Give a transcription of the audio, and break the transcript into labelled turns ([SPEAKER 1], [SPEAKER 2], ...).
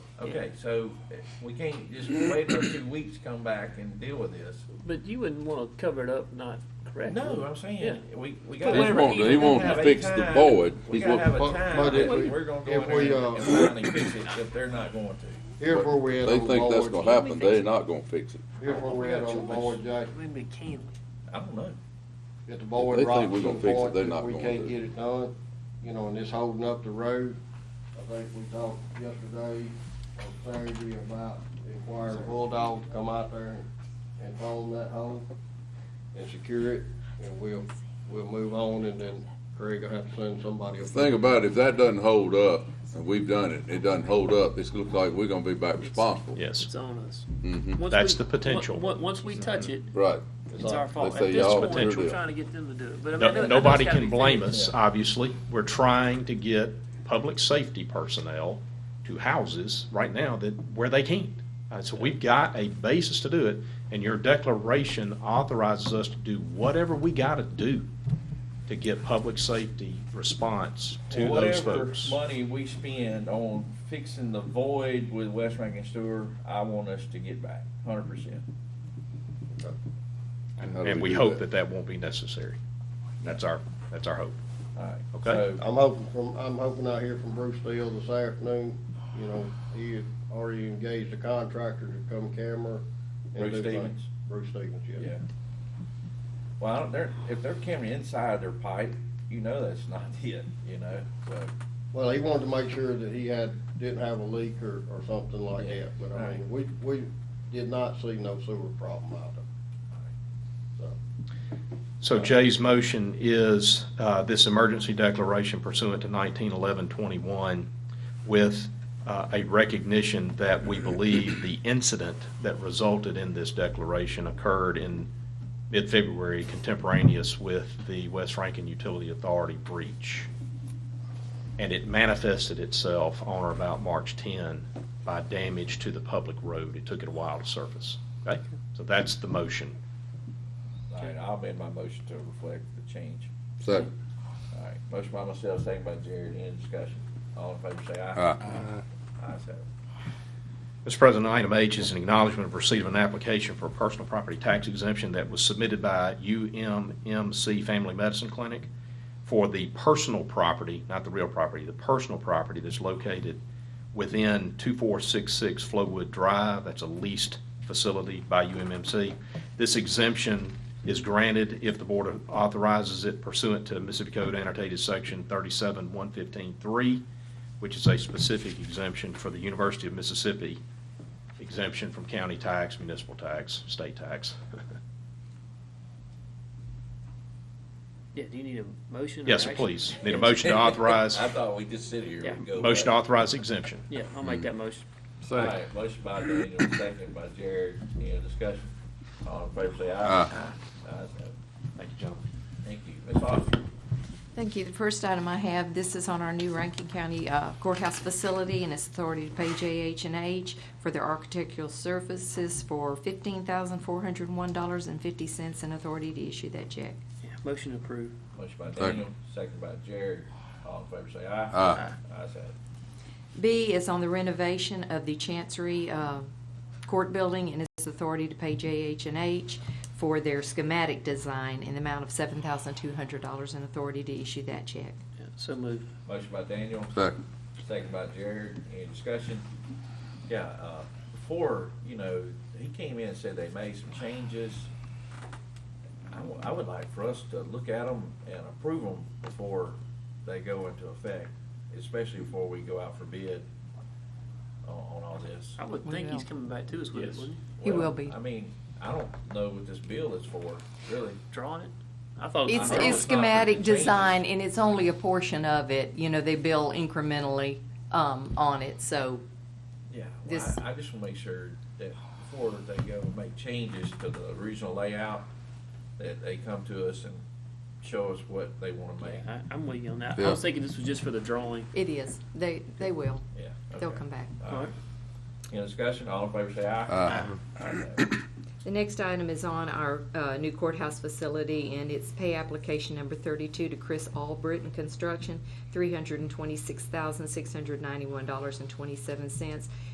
[SPEAKER 1] Okay, so eh, we can't just wait for two weeks, come back and deal with this.
[SPEAKER 2] But you wouldn't wanna cover it up not correctly.
[SPEAKER 1] No, I'm
[SPEAKER 2] Yeah.
[SPEAKER 1] saying, we, we
[SPEAKER 2] But
[SPEAKER 1] gotta.
[SPEAKER 2] He's whatever, wanting to- he
[SPEAKER 1] we gotta
[SPEAKER 3] wants to
[SPEAKER 1] have a
[SPEAKER 3] fix the
[SPEAKER 1] time-
[SPEAKER 3] void.
[SPEAKER 1] We
[SPEAKER 3] He's
[SPEAKER 1] gotta have a
[SPEAKER 4] wanting-
[SPEAKER 1] time,
[SPEAKER 4] but if we-
[SPEAKER 1] that we're gonna go
[SPEAKER 4] if
[SPEAKER 1] in
[SPEAKER 4] we,
[SPEAKER 1] there
[SPEAKER 4] uh,
[SPEAKER 1] and finally fix it, if they're not going to.
[SPEAKER 4] Here's where we had
[SPEAKER 3] They
[SPEAKER 4] on
[SPEAKER 3] think that's
[SPEAKER 4] Lloyd,
[SPEAKER 3] gonna happen, they're not gonna fix it.
[SPEAKER 4] here's where we had on Lloyd Jack,
[SPEAKER 2] When we can.
[SPEAKER 1] I don't know.
[SPEAKER 4] that the
[SPEAKER 3] They
[SPEAKER 4] board
[SPEAKER 3] think
[SPEAKER 4] rocks
[SPEAKER 3] we're
[SPEAKER 4] so
[SPEAKER 3] gonna fix it,
[SPEAKER 4] hard
[SPEAKER 3] they're
[SPEAKER 4] that
[SPEAKER 3] not
[SPEAKER 4] we
[SPEAKER 3] going
[SPEAKER 4] can't
[SPEAKER 3] to.
[SPEAKER 4] get it done, you know, and it's holding up the road. I think we talked yesterday, or Saturday, about requiring Bulldog to come out there and phone that hole and secure it, and we'll, we'll move on, and then Craig will have to send somebody
[SPEAKER 3] The
[SPEAKER 4] up.
[SPEAKER 3] thing about it, if that doesn't hold up, and we've done it, it doesn't hold up, it's look like we're gonna be back responsible.
[SPEAKER 2] It's
[SPEAKER 5] Yes.
[SPEAKER 2] on us.
[SPEAKER 3] Mhm.
[SPEAKER 2] Once
[SPEAKER 5] That's
[SPEAKER 2] we-
[SPEAKER 5] the potential.
[SPEAKER 2] on- on- Once we touch it,
[SPEAKER 3] Right.
[SPEAKER 2] it's our fault.
[SPEAKER 3] They
[SPEAKER 2] At
[SPEAKER 3] say
[SPEAKER 2] this
[SPEAKER 3] y'all
[SPEAKER 2] point,
[SPEAKER 3] potential.
[SPEAKER 2] we're trying to get them to do it, but I mean. I know- I
[SPEAKER 5] No-
[SPEAKER 2] know
[SPEAKER 5] Nobody
[SPEAKER 2] it's gotta
[SPEAKER 5] can
[SPEAKER 2] be
[SPEAKER 5] blame
[SPEAKER 2] fixed.
[SPEAKER 5] us, obviously. We're trying to get public safety personnel to houses right now that, where they can't. Uh, So we've got a basis to do it, and your declaration authorizes us to do whatever we gotta do to get public safety response to those
[SPEAKER 1] Whatever
[SPEAKER 5] folks.
[SPEAKER 1] money we spend on fixing the void with West Rankin Sewer, I want us to get back, hundred percent.
[SPEAKER 5] And
[SPEAKER 3] How do
[SPEAKER 5] and
[SPEAKER 3] we
[SPEAKER 5] we
[SPEAKER 3] do
[SPEAKER 5] hope
[SPEAKER 3] that?
[SPEAKER 5] that that won't be necessary. That's our, that's our hope.
[SPEAKER 1] Alright,
[SPEAKER 5] Okay.
[SPEAKER 1] so,
[SPEAKER 4] I'm hoping from, I'm hoping I hear from Bruce Steele this afternoon, you know, he had already engaged a contractor to come camera. and
[SPEAKER 1] Bruce
[SPEAKER 4] do things.
[SPEAKER 1] Stevens?
[SPEAKER 4] Bruce Stevens, yeah.
[SPEAKER 1] yeah. Well, I don't- they're, if they're coming inside their pipe, you know that's not it, you know, so.
[SPEAKER 4] Well, he wanted to make sure that he had, didn't have a leak or, or something like
[SPEAKER 1] Yeah.
[SPEAKER 4] that, but I
[SPEAKER 1] Right.
[SPEAKER 4] mean, we, we did not see no sewer problem out there.
[SPEAKER 5] So Jay's motion is uh, this emergency declaration pursuant to 1911-21 with uh, a recognition that we believe the incident that resulted in this declaration occurred in mid-February contemporaneous with the West Rankin Utility Authority breach. And it manifested itself on or about March 10 by damage to the public road. It took it a while to surface. Okay? So that's the motion.
[SPEAKER 1] Alright, I'll amend my motion to reflect the change.
[SPEAKER 3] Second.
[SPEAKER 1] Alright, motion by myself, second by Jared, any discussion? All in favor say aye.
[SPEAKER 3] Aye.
[SPEAKER 1] Aye, so.
[SPEAKER 5] Mr. President, item H is an acknowledgment of receipt of an application for a personal property tax exemption that was submitted by UMMC Family Medicine Clinic for the personal property, not the real property, the personal property that's located within 2466 Flowwood Drive. That's a leased facility by UMMC. This exemption is granted if the board authorizes it pursuant to Mississippi Code annotated section 37115-3 which is a specific exemption for the University of Mississippi, exemption from county tax, municipal tax, state tax.
[SPEAKER 2] Yeah, do you need a motion? or
[SPEAKER 5] Yes, sir,
[SPEAKER 2] action?
[SPEAKER 5] please. Need a motion to authorize,
[SPEAKER 1] I thought we just sit here
[SPEAKER 2] Yeah.
[SPEAKER 1] and go.
[SPEAKER 5] motion to
[SPEAKER 1] back.
[SPEAKER 5] authorize exemption.
[SPEAKER 2] Yeah, I'll make that motion.
[SPEAKER 1] Alright, motion by Daniel, second by Jared, any discussion? All in favor say aye.
[SPEAKER 3] Aye.
[SPEAKER 1] Ayes have it.
[SPEAKER 5] Thank you, gentlemen.
[SPEAKER 1] Thank you, Ms. Oster.
[SPEAKER 6] Thank you. The first item I have, this is on our new Rankin County uh, courthouse facility and its authority to pay jh and H for their architectural services for $15,401.50 and authority to issue that check.
[SPEAKER 2] Yeah, Motion approved.
[SPEAKER 1] Motion by
[SPEAKER 3] Second.
[SPEAKER 1] Daniel, second by Jared, all in favor say aye.
[SPEAKER 3] Aye.
[SPEAKER 1] Ayes have it.
[SPEAKER 6] B is on the renovation of the Chancery uh, Court Building and its authority to pay jh and H for their schematic design in the amount of $7,200 and authority to issue that check.
[SPEAKER 2] Yeah, So moved.
[SPEAKER 1] Motion by Daniel,
[SPEAKER 3] Second.
[SPEAKER 1] Second by Jared, any discussion? Yeah, uh, before, you know, he came in and said they made some changes. I, w- I would like for us to look at them and approve them before they go into effect, especially before we go out for bid on, on all this.
[SPEAKER 2] I would think he's coming back to us with it,
[SPEAKER 1] Yes.
[SPEAKER 2] wouldn't
[SPEAKER 6] He will
[SPEAKER 1] Well,
[SPEAKER 6] be.
[SPEAKER 1] I mean, I don't know what this bill is for, really.
[SPEAKER 2] he? Drawing it? I thought. it was-
[SPEAKER 6] It's,
[SPEAKER 2] I thought it
[SPEAKER 6] it's
[SPEAKER 2] was not, but
[SPEAKER 6] schematic
[SPEAKER 2] it changes.
[SPEAKER 6] design, and it's only a portion of it, you know, they bill incrementally, um, on it, so,
[SPEAKER 1] Yeah, well,
[SPEAKER 6] This-
[SPEAKER 1] I, I just want to make sure that before they go and make changes to the original layout, that they come to us and show us what they want to make.
[SPEAKER 2] I, I'm with you on that. I
[SPEAKER 3] Yeah.
[SPEAKER 2] was thinking this was just for the drawing.
[SPEAKER 6] it is, they, they will,
[SPEAKER 1] Yeah.
[SPEAKER 6] they'll
[SPEAKER 1] okay.
[SPEAKER 6] come back.
[SPEAKER 1] All right. Any discussion? All in favor say aye.
[SPEAKER 3] Aye.
[SPEAKER 6] The next item is on our, uh, new courthouse facility, and it's pay application number thirty-two to Chris Albritton Construction, three hundred and twenty-six thousand, six hundred ninety-one dollars and twenty-seven cents.